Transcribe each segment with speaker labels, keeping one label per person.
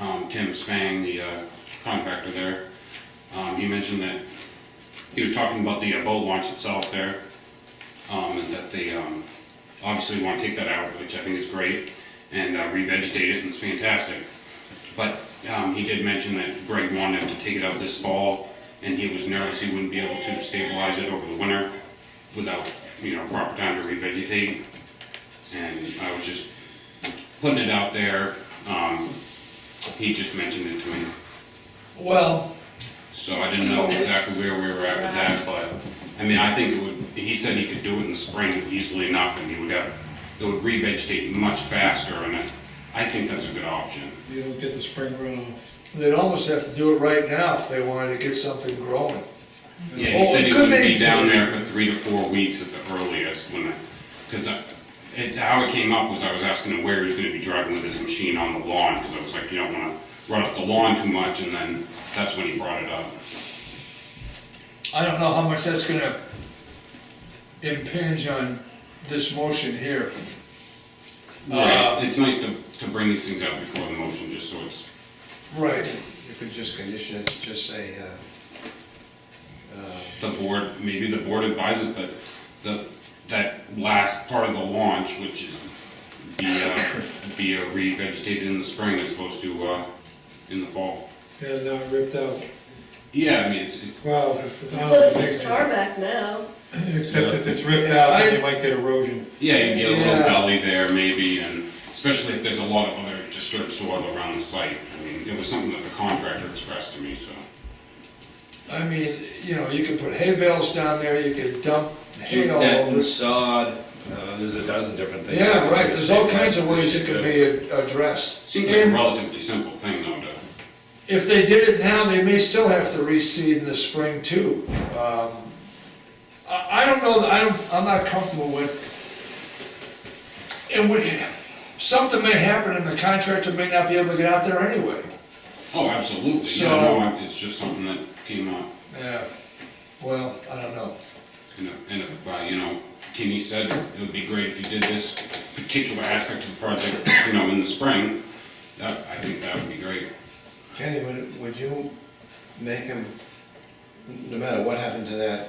Speaker 1: um, Tim Spang, the uh, contractor there. Um, He mentioned that, he was talking about the uh, boat launch itself there, um, and that they um, obviously want to take that out, which I think is great, and uh, revegetate it, and it's fantastic. But um, he did mention that Greg wanted to take it out this fall, and he was nervous he wouldn't be able to stabilize it over the winter without, you know, proper time to revegetate. And I was just putting it out there. Um, he just mentioned it to me,
Speaker 2: Well,
Speaker 1: so I didn't know exactly where we were at with that. But I mean, I think it would. He said he could do it in the spring easily enough, and he would have it would revegetate much faster, and I, I think that's a good option.
Speaker 3: You don't get the spring runoff.
Speaker 2: they'd almost have to do it right now if they wanted to get something growing.
Speaker 1: Yeah, he
Speaker 2: Oh,
Speaker 1: said
Speaker 2: it
Speaker 1: he
Speaker 2: could
Speaker 1: would be
Speaker 2: be.
Speaker 1: down there for three to four weeks at the earliest when, because it's how it came up was I was asking him where he was gonna be driving with his machine on the lawn, because I was like, you don't wanna run up the lawn too much, and then that's when he brought it up.
Speaker 2: I don't know how much that's gonna impinge on this motion here.
Speaker 1: Right, Uh, it's nice to, to bring these things up before the motion, just so it's,
Speaker 2: Right.
Speaker 4: You could just condition it, to just say, uh, uh,
Speaker 1: the board, maybe the board advises that, the, that last part of the launch, which is be, uh, be uh, revegetated in the spring as opposed to, uh, in the fall.
Speaker 3: And not ripped out.
Speaker 1: Yeah, I mean, it's, it-
Speaker 3: Wow.
Speaker 5: Well, it's a star back now.
Speaker 3: Except if it's ripped out, then you might get erosion.
Speaker 1: Yeah, you get a little
Speaker 2: Yeah.
Speaker 1: gully there maybe, and especially if there's a lot of other disturbed soil around the site. I mean, it was something that the contractor expressed to me, so.
Speaker 2: I mean, you know, you could put hay bales down there, you could dump hay all
Speaker 4: net
Speaker 2: over.
Speaker 4: and sod, uh, there's a dozen different things.
Speaker 2: Yeah, right, there's all kinds of ways it could be ad- addressed.
Speaker 1: Seems like a
Speaker 2: And
Speaker 1: relatively simple thing though to,
Speaker 2: If they did it now, they may still have to reseed in the spring too. Um, I, I don't know, I don't, I'm not comfortable with. And we, something may happen and the contractor may not be able to get out there anyway.
Speaker 1: oh, absolutely. Yeah,
Speaker 2: So-
Speaker 1: no, I- it's just something that came up.
Speaker 2: Yeah, well, I don't know.
Speaker 1: And if- and if, uh, you know, Kenny said it would be great if you did this particular aspect of the project, you know, in the spring. That, I think that would be great.
Speaker 4: Kenny, would, would you make him, no matter what happened to that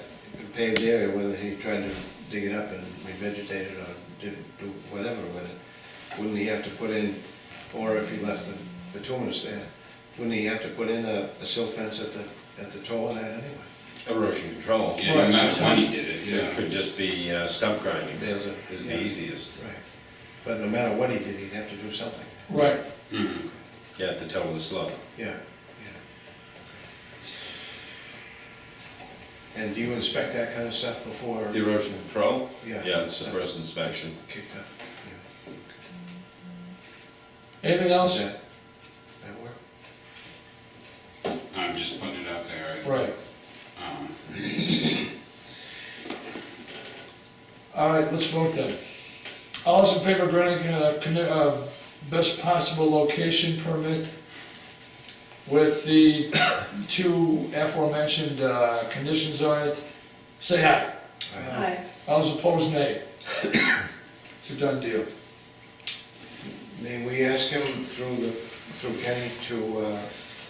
Speaker 4: paved area, whether he tried to dig it up and revegetate it or did, do whatever with it, wouldn't he have to put in, or if he left the, the tumulus there, wouldn't he have to put in a, a silt fence at the, at the toe of that anyway?
Speaker 6: Erosion control.
Speaker 1: Yeah, and that's when he did it,
Speaker 6: It
Speaker 1: yeah.
Speaker 6: could just be uh, stump grindings
Speaker 4: There's a-
Speaker 6: is the
Speaker 4: yeah.
Speaker 6: easiest.
Speaker 4: Right. But no matter what he did, he'd have to do something.
Speaker 2: Right.
Speaker 1: Mhm.
Speaker 6: Yeah, at the toe of the slope.
Speaker 4: Yeah, yeah. And do you inspect that kind of stuff before
Speaker 6: The erosion control?
Speaker 4: Yeah.
Speaker 6: Yeah, it's the first inspection.
Speaker 4: kicked up? Yeah.
Speaker 2: Anything
Speaker 4: Does
Speaker 2: else?
Speaker 4: that, that work?
Speaker 1: I'm just putting it out there.
Speaker 2: Right.
Speaker 1: Um,
Speaker 2: All right, let's vote then. All those in favor of granting uh, conne- uh, best possible location permit with the two aforementioned uh, conditions on it, say aye.
Speaker 5: Hi.
Speaker 2: All those opposed, nay. It's a done deal.
Speaker 4: May we ask him through the, through Kenny to uh,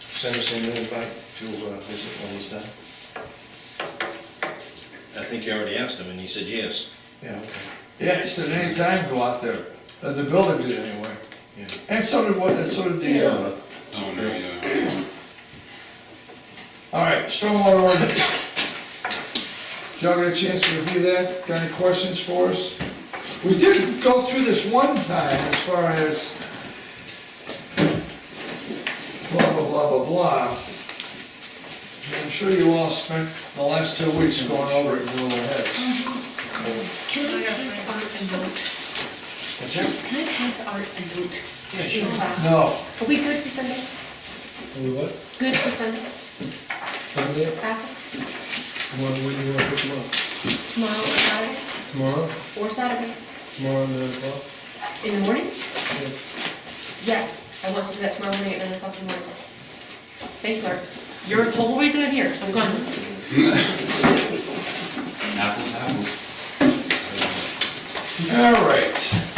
Speaker 4: send us an invite to uh, visit when he's done?
Speaker 6: I think you already asked him and he said yes.
Speaker 4: Yeah, okay,
Speaker 2: Yeah, he said anytime go out there. Uh, The building did anyway.
Speaker 4: yeah.
Speaker 2: And so did what, so did the, uh,
Speaker 1: Oh, no, yeah.
Speaker 2: all right, stormwater ordinance. Y'all get a chance to review that? Got any questions for us? We did go through this one time as far as blah, blah, blah, blah, blah. I'm sure you all spent the last two weeks going over it in your little heads.
Speaker 7: Can I pass Art a note?
Speaker 2: What's that?
Speaker 7: Can I pass Art a note? Yeah,
Speaker 2: No.
Speaker 7: Are we good for Sunday?
Speaker 3: We what?
Speaker 7: Good for Sunday?
Speaker 3: Sunday?
Speaker 7: Raffles?
Speaker 3: What, what do you want to pick them up?
Speaker 7: Tomorrow or Friday?
Speaker 3: Tomorrow?
Speaker 7: Or Saturday?
Speaker 3: Tomorrow at nine o'clock?
Speaker 7: In the morning?
Speaker 3: Yeah.
Speaker 7: Yes, I want to do that tomorrow morning at nine o'clock in the morning. Thank you, Art. You're the whole reason I'm here. I'm gone.
Speaker 1: uh, Apples, apples.
Speaker 2: All right.